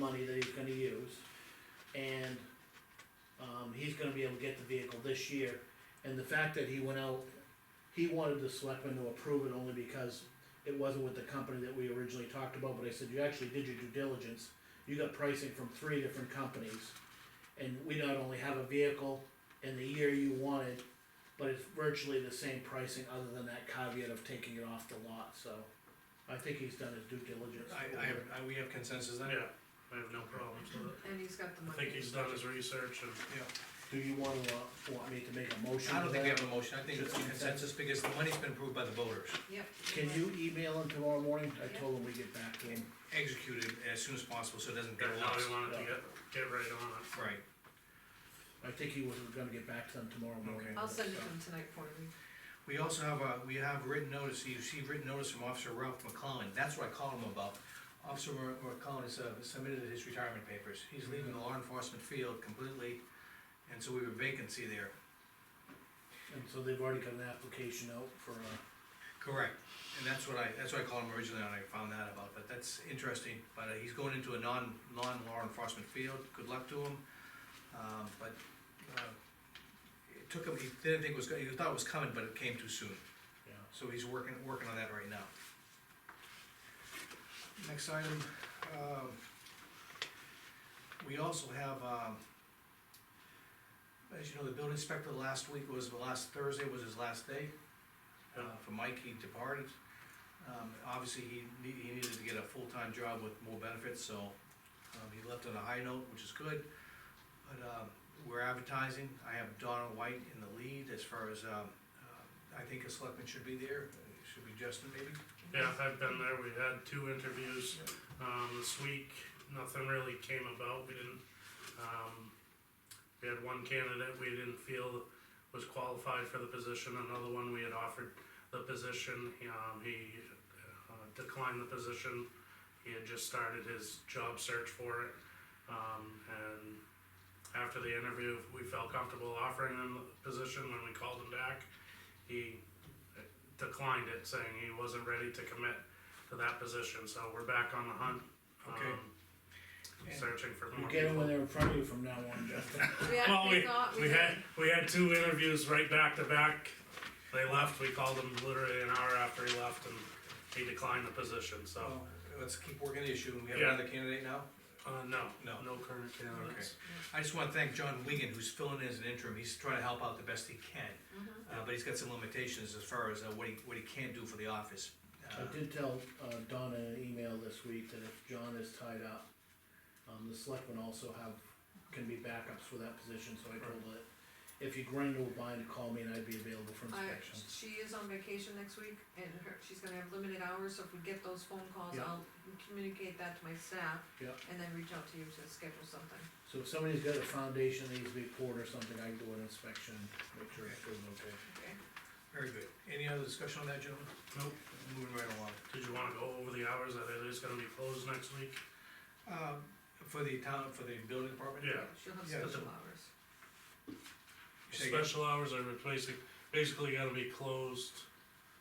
money that he's gonna use. And, um, he's gonna be able to get the vehicle this year. And the fact that he went out, he wanted the selectmen to approve it only because it wasn't with the company that we originally talked about, but I said, you actually did your due diligence. You got pricing from three different companies. And we not only have a vehicle in the year you wanted, but it's virtually the same pricing other than that caveat of taking it off the lot, so. I think he's done his due diligence. I, I have, I, we have consensus then? Yeah, I have no problems with it. And he's got the I money. think he's done his research and, Yeah. Do you wanna, uh, want me to make a motion? I to don't think we that? have a motion, I think it's consensus, because the money's been approved by the voters, Yep. Can you email him tomorrow morning? I told him we'd get back to him. executed as soon as possible, so it doesn't get got how lost. he wanted to get, get right on it. Right, I think he was gonna get back to them tomorrow morning. Okay. I'll send it to him tonight for you. we also have, uh, we have written notice, you see written notice from Officer Ralph McCollum, that's what I called him about. Officer Ra- McCollum has uh, submitted his retirement papers, he's leaving the law enforcement field completely, and so we have a vacancy there. And so they've already got an application out for, uh, Correct, and that's what I, that's what I called him originally, and I found that about, but that's interesting, but uh, he's going into a non, non-law enforcement field, good luck to him. Um, but, uh, it took him, he didn't think it was, go- he thought it was coming, but it came too soon, yeah. so he's working, working on that right now. Next item, um, we also have, um, as you know, the building inspector last week was, last Thursday was his last day uh, for Mike, he departed. Um, obviously, he need, he needed to get a full-time job with more benefits, so, um, he left on a high note, which is good. But, um, we're advertising, I have Donna White in the lead as far as, um, uh, I think a selectman should be there, It should be Justin maybe? Yeah, I've been there, we had two interviews, um, this week, nothing really came about, we didn't, um, we had one candidate we didn't feel was qualified for the position, another one we had offered the position, um, he uh, declined the position. He had just started his job search for it, um, and after the interview, we felt comfortable offering him the position when we called him back. He declined it, saying he wasn't ready to commit to that position, so we're back on the hunt. Okay. um, Searching for You more get them when people. they're in front of you from now on, Justin. We Well, actually we, thought we we had, had, we had two interviews right back to back. They left, we called him literally an hour after he left and he declined the position, so, Well, Let's keep working the issue, we have Yeah. another candidate now? uh, no, No. no current candidates. I just wanna thank John Wigan, who's filling in as an interim, he's trying to help out the best he can. Mm-hmm. Uh, but he's got some limitations as far as uh, what he, what he can do for the office. Uh, I did tell, uh, Donna in an email this week that if John is tied up, um, the selectmen also have, can be backups for that position, so I told her that if you grind a bind, call me and I'd be available for I, inspection. she is on vacation next week and her, she's gonna have limited hours, so if we get those phone calls, Yeah. I'll communicate that to my staff. Yeah. And then reach out to you to schedule something. So if somebody's got a foundation that needs to be poured or something, I can do an inspection, make sure it's doing okay. Okay. Very good. Any other discussion on that, gentlemen? Nope. Moving right along. Did you wanna go over the hours? Are they just gonna be closed next week? Um, for the town, for the building department? Yeah. She'll have Yeah, special hours. You say again? Special hours are replacing, basically gonna be closed.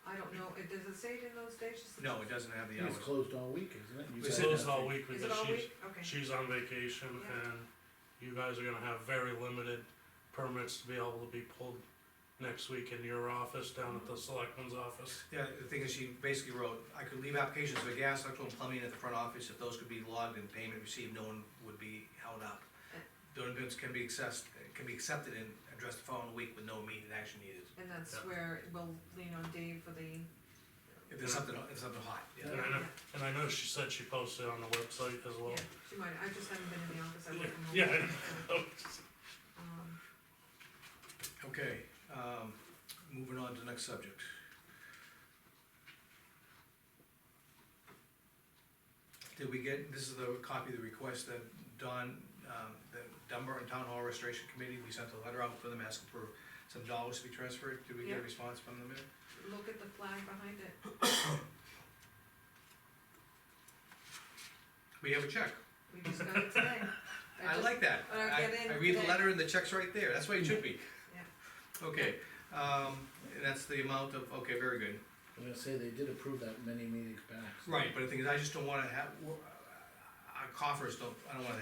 I don't know, it, does it say it in those days? Just- No, it doesn't have the hours. It's closed all week, isn't it? You guys It's It's said closed have- all week Is it because all she's, week? Okay. she's on vacation Yeah. and you guys are gonna have very limited permits to be able to be pulled next week in your office, down at the selectman's office. Yeah, the thing is, she basically wrote, I could leave applications for gas, electrical, and plumbing at the front office, if those could be logged and payment received, no one would be held up. Building permits can be accessed, can be accepted and addressed the following week with no immediate action needed. And that's Yeah. where we'll lean on Dave for the, If there's something, if there's something hot, yeah. And I know, and I know she said she posted on the website as well. yeah, she might, I just haven't been in the office, I work from home. Yeah, I so, know. Um, Okay, um, moving on to the next subject. Did we get, this is the copy of the request that Don, um, the Dunbar and Town Hall Restoration Committee, we sent a letter out for them asking for some dollars to be transferred, did we get Yeah. a response from them? yet? look at the flag behind it, We have a check, we just got it today. I just- like that, I I, get in I read the today. letter and the check's right there, that's why it should be. Yeah. Okay, um, and that's the amount of, okay, very good. I'm gonna say they did approve that many meetings back. so- Right, but the thing is, I just don't wanna have, w- I coffers don't, I don't wanna